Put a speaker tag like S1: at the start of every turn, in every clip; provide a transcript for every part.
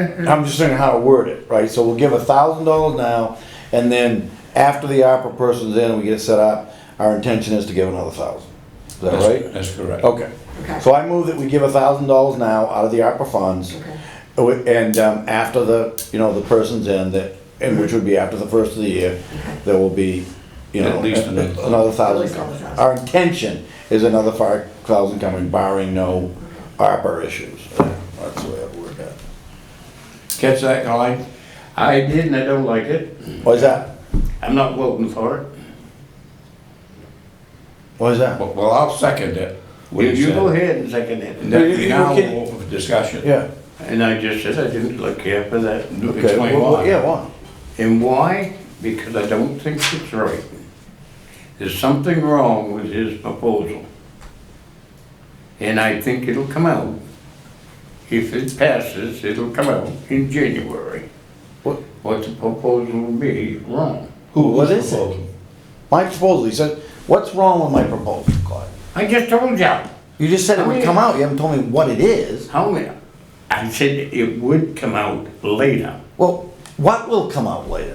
S1: I'm just saying how to word it, right? So we'll give a thousand dollars now, and then after the opera person's in and we get it set up, our intention is to give another thousand. Is that
S2: That's-
S1: right?
S2: That's correct.
S1: Okay.
S3: Okay.
S1: So I move that we give a thousand dollars now out of the opera funds.
S3: Okay.
S1: Oh, And um, after the, you know, the person's in, that, and which would be after the first of the year, there will be, you
S2: At
S1: know,
S2: least
S1: a-
S2: another-
S1: another thousand.
S3: least another thousand.
S1: Our intention is another five thousand coming barring no ARPA issues. That's the way I've worded that.
S2: Catch that, Colleen?
S4: I did and I don't like it.
S1: What is that?
S4: I'm not voting for it.
S1: What is that?
S2: Well, well, I'll second it. what
S4: You,
S2: he
S4: you
S2: said.
S4: go ahead and second it.
S2: Now-
S1: You- you- you
S2: Now,
S1: can-
S2: we'll open for discussion.
S1: Yeah.
S4: And I just said I didn't look here for that.
S2: Do-
S1: Okay.
S2: Explain
S1: Well, well,
S2: why.
S1: Yeah, why?
S4: And why? Because I don't think it's right. There's something wrong with his proposal. And I think it'll come out. If it passes, it'll come out in January.
S1: What-
S4: What the proposal will be, wrong.
S1: Who, what
S2: who's
S1: is it?
S2: proposing?
S1: My proposal, he said, what's wrong with my proposal, Clyde?
S4: I just told you.
S1: You just said it
S4: I
S1: would
S4: mean-
S1: come out, you haven't told me what it is.
S4: How many? I said it would come out later.
S1: Well, what will come out later?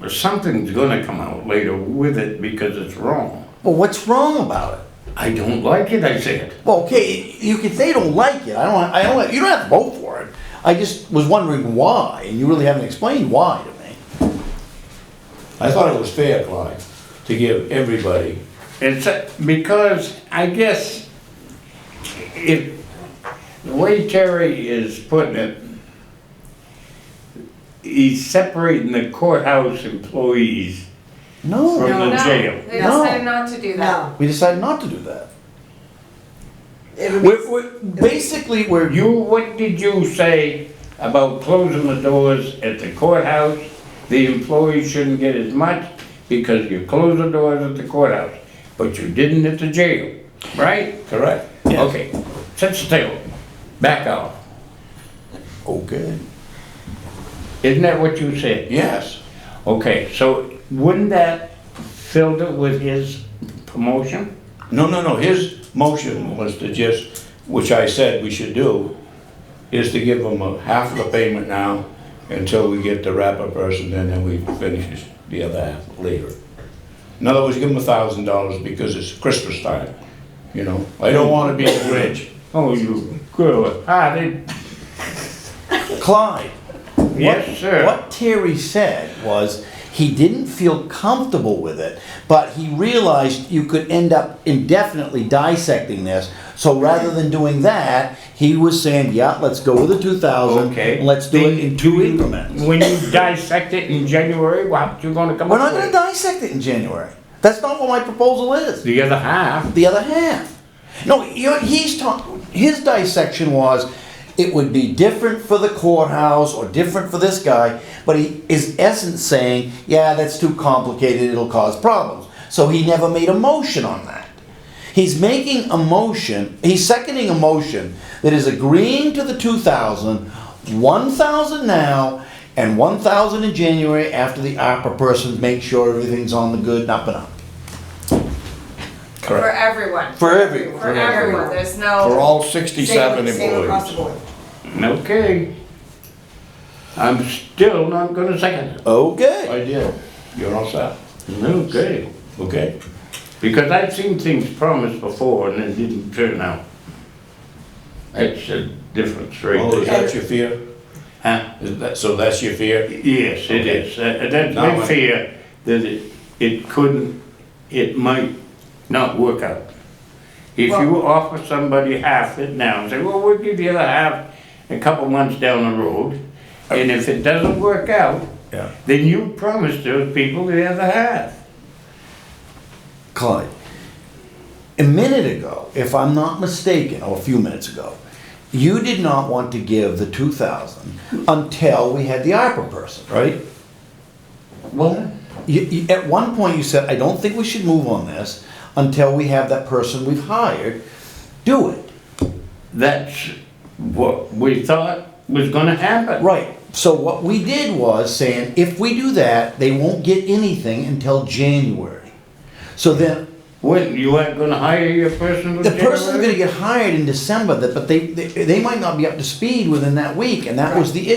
S4: But something's gonna come out later with it because it's wrong.
S1: Well, what's wrong about it?
S4: I don't like it, I said.
S1: Well, okay, you can say you don't like it, I don't, I don't, you don't have to vote for it. I just was wondering why, and you really haven't explained why to me.
S2: I thought it was fair, Clyde, to give everybody,
S4: It's uh, because, I guess, if, the way Terry is putting it, he's separating the courthouse employees.
S1: No,
S4: From-
S5: No,
S4: the
S5: no,
S4: jail.
S5: They
S1: No.
S5: decided not to do that.
S3: No.
S1: we decided not to do that.
S3: It would be-
S1: We're, we're, basically, we're,
S4: You, what did you say about closing the doors at the courthouse? The employees shouldn't get as much because you closed the doors at the courthouse, but you didn't at the jail, right?
S2: correct?
S4: Okay, sit still, back off.
S1: okay.
S4: Isn't that what you said?
S2: Yes.
S4: Okay, so wouldn't that filled it with his promotion?
S2: No, no, no, his motion was to just, which I said we should do, is to give them a half of the payment now until we get the wrapper person and then we finish the other half later. In other words, give them a thousand dollars because it's Christmas time, you know? I don't wanna be rich.
S4: Oh, you good hearted.
S1: Clyde,
S4: Yes, sir.
S1: What Terry said was he didn't feel comfortable with it, but he realized you could end up indefinitely dissecting this. So rather than doing that, he was saying, yeah, let's go with the two thousand.
S4: Okay.
S1: Let's do it in two
S4: Then you-
S1: increments.
S4: When you dissect it in January, what you gonna come
S1: We're not
S4: up
S1: gonna
S4: with?
S1: dissect it in January. That's not what my proposal is.
S4: The other half,
S1: The other half. No, you he's talking, his dissection was, it would be different for the courthouse or different for this guy, but he is essence saying, yeah, that's too complicated, it'll cause problems. So he never made a motion on that. He's making a motion, he's seconding a motion that is agreeing to the 2,000, 1,000 now, and 1,000 in January after the opera person makes sure everything's on the good and up and up.
S5: For
S2: Correct.
S5: everyone.
S1: For everyone.
S5: For everyone, there's
S2: For
S5: no,
S2: all
S3: Same,
S2: sixty-seven
S3: same across the
S2: employees.
S3: board.
S4: okay. I'm still not gonna second it.
S1: Okay.
S2: I did. You're all set,
S4: Okay.
S2: okay?
S4: Because I've seen things promised before and it didn't turn out. That's a difference right
S2: Oh, is
S4: there.
S2: that your fear?
S4: Huh?
S2: Is that, so that's your fear?
S4: Yes, it
S2: Okay.
S4: is. Uh, That's
S2: Now
S4: my
S2: I-
S4: fear, that it, it couldn't, it might not work out. If you offer somebody half it now, and say, well, we'll give you the half a couple months down the road, and if it doesn't work out,
S2: Yeah.
S4: then you promised those people the other half.
S1: Clyde, a minute ago, if I'm not mistaken, or a few minutes ago, you did not want to give the two thousand until we had the ARPA person, right?
S4: What?
S1: You, you, at one point, you said, "I don't think we should move on this until we have that person we've hired do it."
S4: That's what we thought was gonna happen.
S1: Right. So what we did was saying, if we do that, they won't get anything until January. So then
S4: What, you aren't gonna hire your person with
S1: The person's
S4: January?
S1: gonna get hired in December, that- but they, they, they might not be up to speed within that week, and that was the